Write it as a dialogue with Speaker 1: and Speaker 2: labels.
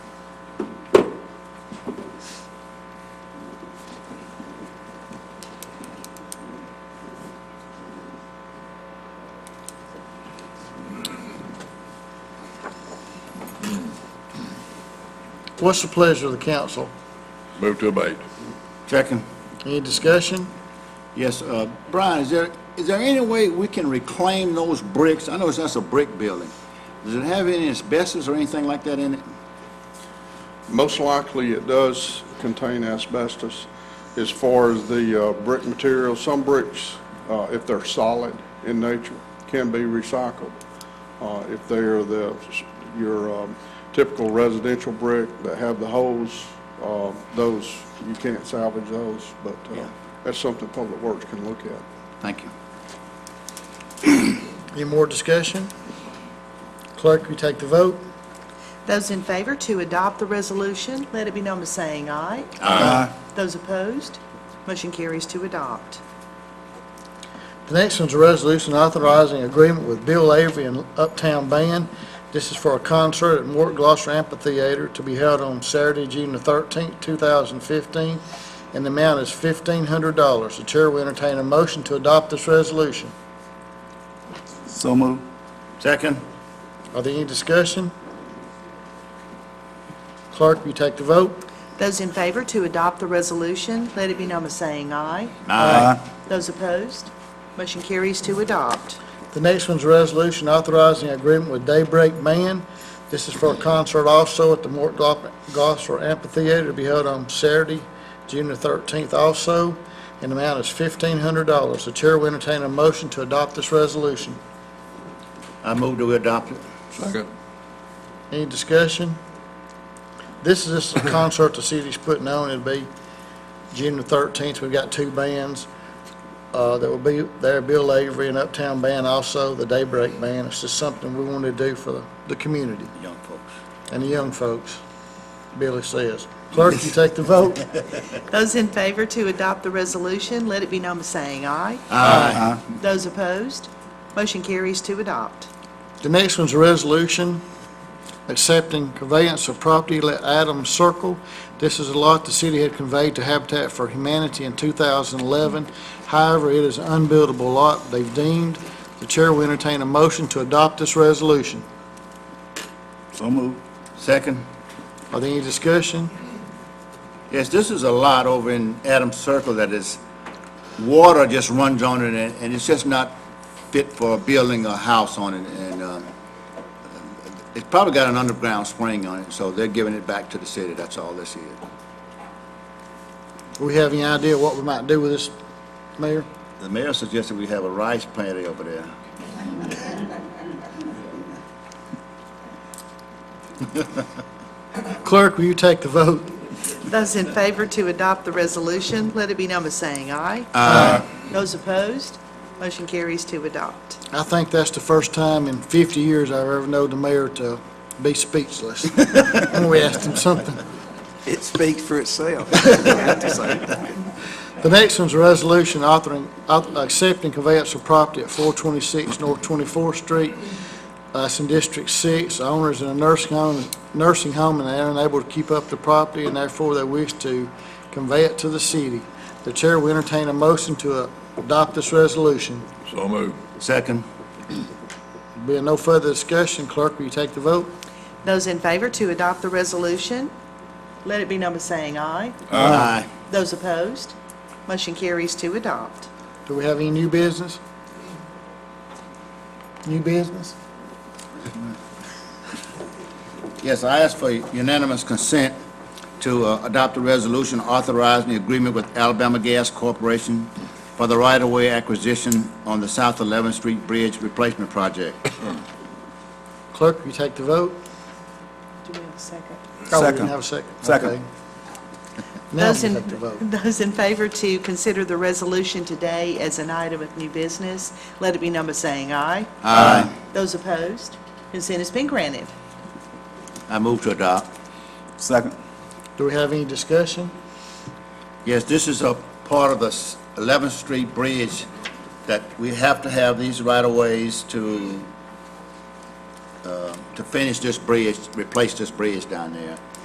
Speaker 1: What's the pleasure of the council?
Speaker 2: Move to abate.
Speaker 3: Second.
Speaker 1: Any discussion?
Speaker 3: Yes, uh, Brian, is there, is there any way we can reclaim those bricks? I know it's that's a brick building. Does it have any asbestos or anything like that in it?
Speaker 4: Most likely, it does contain asbestos. As far as the uh, brick material, some bricks, uh, if they're solid in nature, can be recycled. Uh, If they are the, your um, typical residential brick that have the holes, uh, those, you can't salvage those, but uh,
Speaker 3: Yeah.
Speaker 4: that's something Public Works can look at.
Speaker 3: Thank you.
Speaker 1: Any more discussion? Clerk, will you take the vote?
Speaker 5: Those in favor to adopt the resolution, let it be known by saying aye.
Speaker 3: Aye.
Speaker 5: Those opposed, motion carries to adopt.
Speaker 1: The next one's a resolution authorizing agreement with Bill Avery and Uptown Band. This is for a concert at Mort Gloucester Amphitheater to be held on Saturday, June the 13th, 2015, and the amount is $1,500. The chair will entertain a motion to adopt this resolution.
Speaker 3: So moved. Second.
Speaker 1: Are there any discussion? Clerk, will you take the vote?
Speaker 5: Those in favor to adopt the resolution, let it be known by saying aye.
Speaker 3: Aye.
Speaker 5: Those opposed, motion carries to adopt.
Speaker 1: The next one's a resolution authorizing agreement with Daybreak Man. This is for a concert also at the Mort Glo- Gosler Amphitheater to be held on Saturday, June the 13th also, and the amount is $1,500. The chair will entertain a motion to adopt this resolution.
Speaker 3: I move to adopt it.
Speaker 2: Second.
Speaker 1: Any discussion? This is just a concert the city's putting on. It'll be June the 13th. We've got two bands uh, that will be there, Bill Avery and Uptown Band also, the Daybreak Band. It's just something we want to do for the- the community
Speaker 3: Young folks.
Speaker 1: and the young folks, Billy says. Clerk, you take the vote.
Speaker 5: Those in favor to adopt the resolution, let it be known by saying aye.
Speaker 3: Aye.
Speaker 5: Those opposed, motion carries to adopt.
Speaker 1: The next one's a resolution accepting conveyance of property at Adams Circle. This is a lot the city had conveyed to Habitat for Humanity in 2011. However, it is an unbuildable lot they've deemed. The chair will entertain a motion to adopt this resolution.
Speaker 3: So moved. Second.
Speaker 1: Are there any discussion?
Speaker 3: Yes, this is a lot over in Adams Circle that is, water just runs on it, and- and it's just not fit for building a house on it, and um, it's probably got an underground spring on it, so they're giving it back to the city, that's all this is.
Speaker 1: Do we have any idea what we might do with this, Mayor?
Speaker 3: The mayor suggested we have a rice plant over there.
Speaker 1: Clerk, will you take the vote?
Speaker 5: Those in favor to adopt the resolution, let it be known by saying aye. Those opposed, motion carries to adopt.
Speaker 1: I think that's the first time in 50 years I've ever known the mayor to be speechless when we asked him something.
Speaker 6: It speaks for itself. I have to say.
Speaker 1: The next one's a resolution authoring, auth- accepting conveyance of property at 426 North 24th Street. Uh, It's in District 6. The owner is in a nursing home, nursing home, and they're unable to keep up the property, and therefore they wish to convey it to the city. The chair will entertain a motion to uh, adopt this resolution.
Speaker 2: So move.
Speaker 3: Second.
Speaker 1: Being no further discussion, clerk, will you take the vote?
Speaker 5: Those in favor to adopt the resolution, let it be known by saying aye.
Speaker 3: Aye.
Speaker 5: Those opposed, motion carries to adopt.
Speaker 1: Do we have any new business? New business?
Speaker 3: Uh, Yes, I ask for unanimous consent to uh, adopt a resolution authorizing the agreement with Alabama Gas Corporation for the right-of-way acquisition on the South 11th Street Bridge Replacement Project.
Speaker 1: Clerk, will you take the vote?
Speaker 5: Do we have a second?
Speaker 1: Oh, we didn't
Speaker 6: Second.
Speaker 1: have a second.
Speaker 6: Second.
Speaker 1: Okay. Now we
Speaker 5: Those in,
Speaker 1: take the vote.
Speaker 5: those in favor to consider the resolution today as an item of new business, let it be known by saying aye. Aye. Those opposed, consent has been granted.
Speaker 3: I move to adopt.
Speaker 6: Second.
Speaker 1: Do we have any discussion?
Speaker 3: Yes, this is a part of the s- 11th Street Bridge that we have to have these right-of-ways to, uh, to finish this bridge, replace this bridge down there.